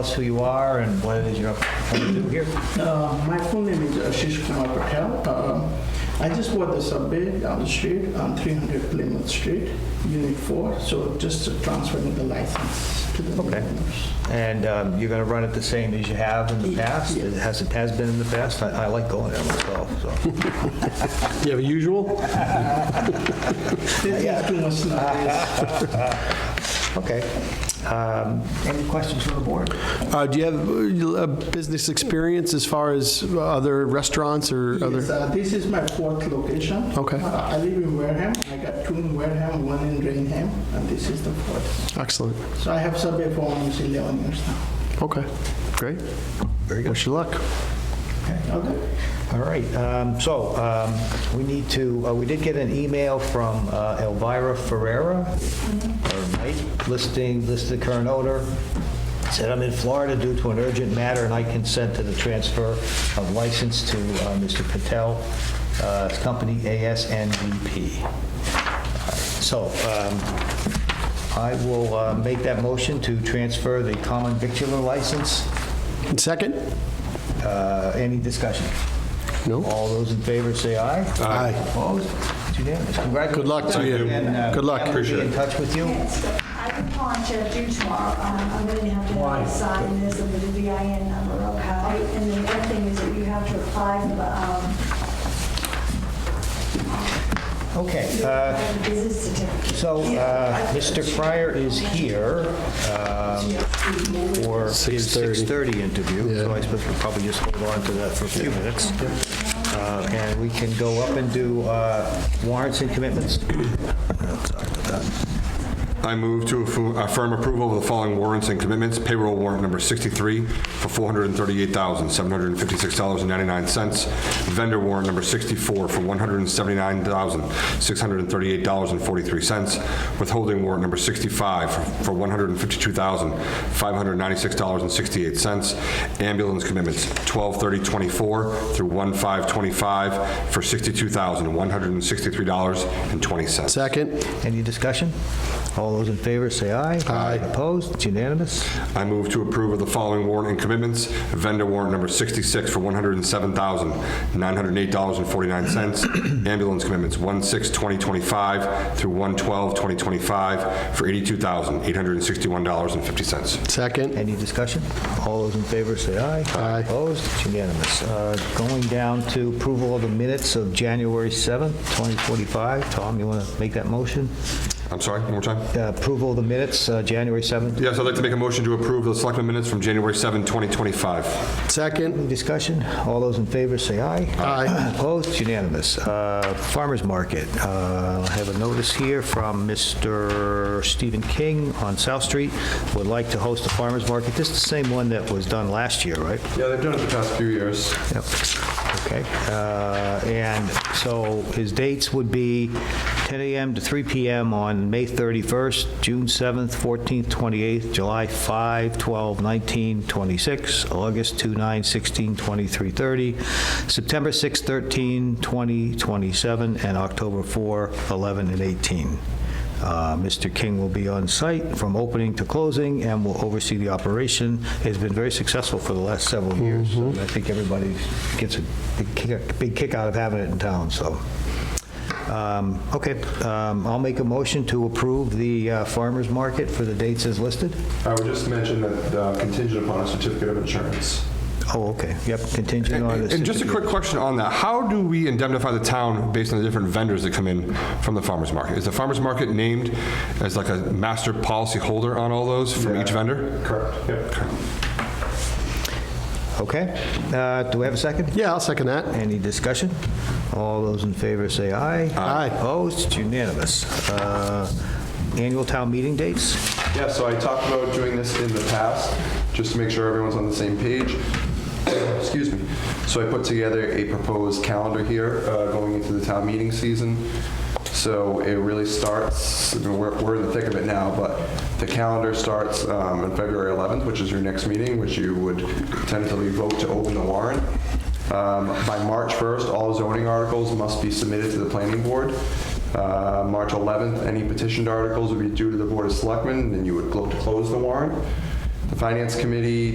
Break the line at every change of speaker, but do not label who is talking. us who you are and what it is you're up to do here.
Uh, my full name is Ashish Kumar Patel. Um, I just bought the subway down the street on 300 Plymouth Street, Unit 4. So just transferring the license to the
Okay.
new owners.
And um, you're going to run it the same as you have in the past? It has, it has been in the past? I I like going there myself, so.
You have a usual?
There's just too much noise.
Okay. Um, Any questions from the board?
Uh, Do you have uh, business experience as far as other restaurants or
Yes,
other?
uh, this is my fourth location.
Okay.
Uh, I live in Wareham. I got two in Wareham, one in Rainham, and this is the fourth.
Excellent.
So I have subway for almost 11 years now.
Okay, great.
Very
Wish you luck.
Okay.
All right, um, so um, we need to, uh, we did get an email from uh, Elvira Ferreira, or Knight, listing, listed the current owner, said, "I'm in Florida due to an urgent matter, and I consent to the transfer of license to uh, Mr. Patel, uh, Company ASNVP." So um, I will uh, make that motion to transfer the common victular license.
And Second?
Uh, Any discussion?
No?
All those in favor say aye.
Aye.
Opposed? It's unanimous. Congratulations.
Good luck to you.
And, uh,
Good luck.
Pam will be in touch with you.
Okay, so I can call and check due tomorrow. Um, I'm going to have to sign this of the VIN number, okay? And the other thing is that you have to apply for the um,
Okay, uh,
um, business certificate.
so uh, Mr. Fryer is here um, for his 6:30 interview, so I suppose we'll probably just hold on to that for a few minutes. Uh, And we can go up and do uh, warrants and commitments.
I move to affirm- affirm approval of the following warrants and commitments. Payroll warrant number 63 for $438,756.99. Vendor warrant number 64 for $179,638.43. Withholding warrant number 65 for $152,596.68. Ambulance commitments 12/30/24 through 1/5/25 for $62,163.20.
Second?
Any discussion? All those in favor say aye. Aye. Opposed? It's unanimous.
I move to approve of the following warrant and commitments. Vendor warrant number 66 for $107,908.49. Ambulance commitments 1/6/2025 through 1/12/2025 for $82,861.50.
Second?
Any discussion? All those in favor say aye.
Aye.
Opposed? It's unanimous. Uh, Going down to approval of the minutes of January 7th, 2045. Tom, you want to make that motion?
I'm sorry, one more time?
Uh, Approval of the minutes, uh, January 7th.
Yes, I'd like to make a motion to approve the selectmen minutes from January 7, 2025.
Second?
Any discussion? All those in favor say aye.
Aye.
Opposed? It's unanimous. Uh, Farmers Market. Uh, I have a notice here from Mr. Stephen King on South Street. Would like to host a farmers market. This is the same one that was done last year, right?
Yeah, they've done it the past few years.
Yep. Okay. Uh, And so his dates would be 10 AM to 3 PM on May 31st, June 7th, 14th, 28th, July 5, 12, 19, 26, August 2, 9, 16, 23, 30, September 6, 13, 20, 27, and October 4, 11, and 18. Uh, Mr. King will be on site from opening to closing and will oversee the operation. It's been very successful for the last several years. and
Mm-hmm.
I think everybody gets a big kick- big kick out of having it in town, so. Um, Okay, um, I'll make a motion to approve the uh, farmer's market for the dates as listed.
I would just mention that uh, contingent upon a certificate of insurance.
Oh, okay, yep, contingent on this.
And just a quick question on that. How do we indemnify the town based on the different vendors that come in from the farmer's market? Is the farmer's market named as like a master policy holder on all those from each
Yeah.
vendor?
Correct. Yep.
Okay, Uh, do we have a second?
Yeah, I'll second that.
Any discussion? All those in favor say aye.
Aye.
Opposed? It's unanimous. Uh, Annual town meeting dates?
Yeah, so I talked about doing this in the past, just to make sure everyone's on the same page. Excuse me. So I put together a proposed calendar here uh, going into the town meeting season. So it really starts, I mean, we're we're in the thick of it now, but the calendar starts um, on February 11th, which is your next meeting, which you would tentatively vote to open the warrant. Um, By March 1st, all zoning articles must be submitted to the planning board. Uh, March 11th, any petitioned articles would be due to the Board of Selectmen, and you would look to close the warrant. The Finance Committee